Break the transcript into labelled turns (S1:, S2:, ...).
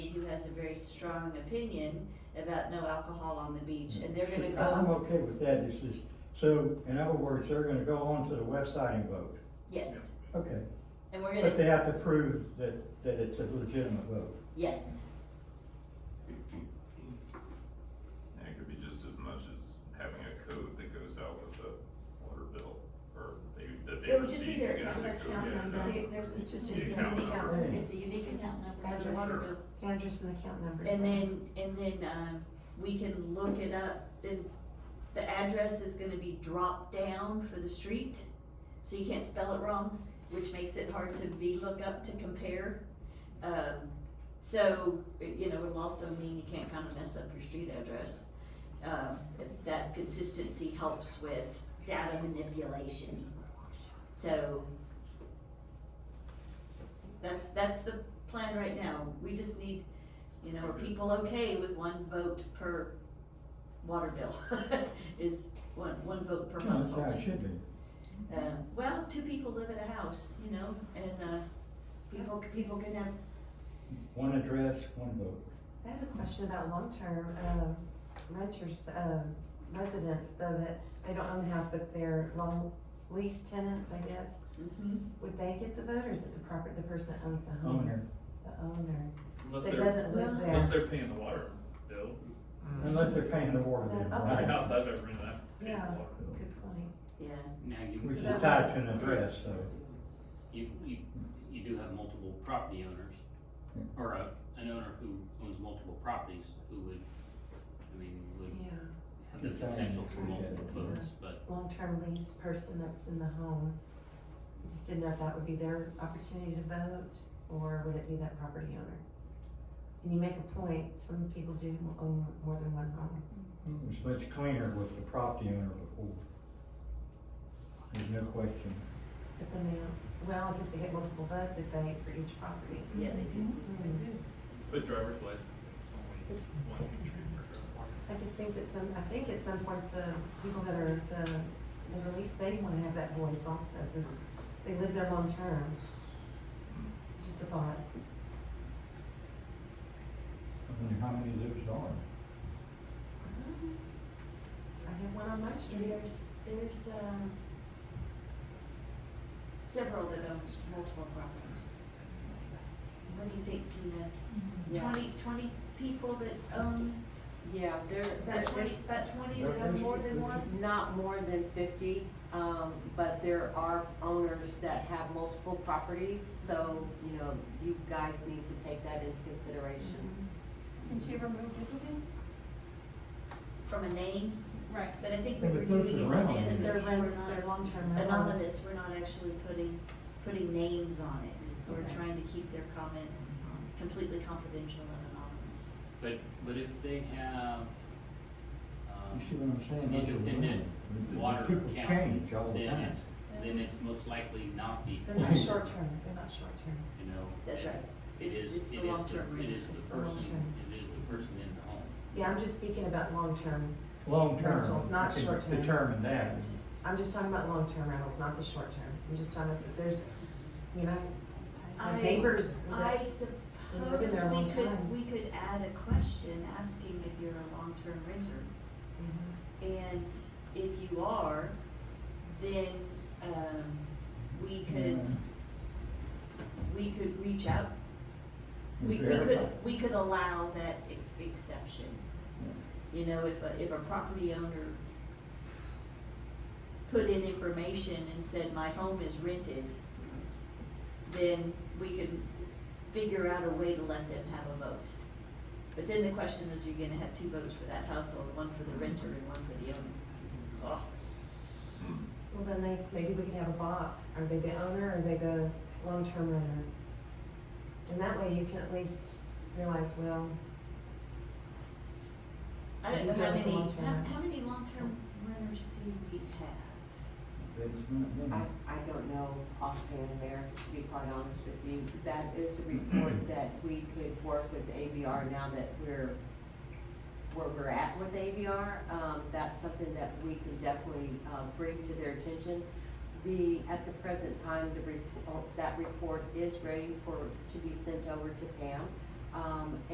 S1: has a very strong opinion about no alcohol on the beach, and they're gonna
S2: See, I'm
S1: go,
S2: okay with that, it's just, so, in other words, they're gonna go onto the website and vote,
S1: yes,
S2: okay.
S1: and we're
S2: But
S1: gonna,
S2: they have to prove that, that it's a legitimate vote.
S1: yes,
S3: And it could be just as much as having a code that goes out with the water bill, or they, that they
S4: It would just be
S3: receive.
S4: their
S3: you know,
S4: account-
S3: the code,
S4: account
S3: yeah,
S4: number.
S3: account
S4: They-
S3: number.
S4: there's- it's
S3: The
S4: just an
S3: account
S4: account
S3: number.
S2: Hey.
S1: it's a unique account number for your
S4: Address.
S1: water bill.
S4: Address and account numbers.
S1: And then, and then, um, we can look it up, the, the address is gonna be dropped down for the street, so you can't spell it wrong, which makes it hard to be look up to compare. Um, so, you know, it'll also mean you can't kinda mess up your street address. Um, that consistency helps with data manipulation. So, that's, that's the plan right now, we just need you know, are people okay with one vote per water bill? Is one, one vote per
S2: No, That's how it
S1: household.
S2: should be.
S1: Uh, well, two people live in a house, you know, and, uh, people, people can have,
S2: One address, one vote.
S4: I have a question about long-term, um, renters, um, residents, though that they don't own the house, but they're long lease tenants, I guess.
S2: Mm-hmm.
S4: Would they get the vote or is it the property, the person that owns the home?
S2: Owner,
S4: The owner,
S5: Unless
S4: that
S5: they're,
S4: doesn't live
S1: Well-
S5: unless
S4: there.
S5: they're paying the water bill,
S2: unless they're paying the water
S1: Uh,
S2: bill,
S5: the
S2: right?
S5: house I've ever rented, I'm paying the
S4: Yeah.
S5: water bill.
S4: Good point.
S1: yeah,
S6: Now,
S2: Which
S6: you,
S2: is tied to an address, so.
S6: you, you, you do have multiple property owners, or a, an owner who owns multiple properties, who would, I mean, would
S4: Yeah,
S6: have the
S2: Design
S6: potential for
S2: and
S6: multiple
S2: create
S4: that.
S6: votes, but
S4: long-term lease person that's in the home. Just didn't know if that would be their opportunity to vote or would it be that property owner? And you make a point, some people do own more than one home.
S2: It's much cleaner with the property owner before. There's no question.
S4: But then they, well, I guess they get multiple votes if they, for each property. Hmm.
S1: yeah, they do.
S5: But driver's license, only one retriever.
S4: I just think that some, I think at some point, the people that are, the, the release, they wanna have that voice also, since they live there long term. Just a thought.
S2: I mean, how many of those are?
S1: Mm-hmm.
S4: I have one on my street.
S1: There's, there's, um, several that own multiple properties. What do you think, Tina?
S7: Yeah.
S1: Twenty, twenty people that own,
S7: Yeah, there,
S1: about
S7: that,
S1: twenty, about twenty that
S2: There
S1: have
S2: is-
S1: more than
S2: there's-
S1: one?
S7: not more than fifty, um, but there are owners that have multiple properties, so, you know, you guys need to take that into consideration.
S8: Can she remove duplicates?
S1: from a name,
S8: Right.
S1: but I think we
S2: Yeah,
S1: were
S2: but those
S1: doing it
S2: are relevant.
S4: Their
S1: anonymous,
S4: rents,
S1: we're
S4: their long-term
S1: not,
S4: rentals.
S1: anonymous, we're not actually putting, putting names on it. We're
S7: Okay.
S1: trying to keep their comments completely confidential and anonymous.
S6: But, but if they have, um,
S2: You see what I'm saying? Those are
S6: Independent
S2: relevant.
S6: water
S2: People
S6: count,
S2: change all the
S6: then
S2: time.
S6: it's, then it's most likely not the,
S4: They're not short-term, they're not short-term.
S6: you know.
S1: That's right.
S6: It
S1: It's-
S6: is,
S1: it's
S6: it
S1: the
S6: is,
S1: long-term
S6: the- it
S1: rate.
S6: is
S4: It's
S6: the
S4: the
S6: person,
S4: long-term.
S6: it is the person in the home.
S4: Yeah, I'm just speaking about long-term.
S2: Long term.
S4: Rentals, not
S2: we can
S4: short term.
S2: Determine that.
S4: I'm just talking about long-term rentals, not the short-term. I'm just talking about, there's, you know, my
S1: I-
S4: neighbors. that-
S1: I
S4: They've been there a
S1: suppose
S4: long
S1: we could,
S4: time.
S1: we could add a question asking if you're a long-term renter.
S4: Mhm.
S1: And if you are, then, um, we could,
S2: Yeah.
S1: we could reach out We, we
S2: Verify.
S1: could, we could allow that e- exception. You know, if a, if a property owner put in information and said, my home is rented, then we can figure out a way to let them have a vote. But then the question is, you're gonna have two votes for that household, one for the renter and one for the owner.
S3: Hmm.
S4: Well, then they, maybe we could have a box. Are they the owner or are they the long-term renter? And that way you can at least realize, well,
S1: I don't
S4: You
S1: know how
S4: have a
S1: many,
S4: long-term
S1: how,
S4: renter.
S1: how many long-term renters do we have?
S2: It's not
S7: I,
S2: many.
S7: I don't know offhand, Mayor, to be quite honest with you, that is a report that we could work with ABR now that we're, where we're at with ABR, um, that's something that we can definitely, uh, bring to their attention. The, at the present time, the report, that report is ready for, to be sent over to Pam, um,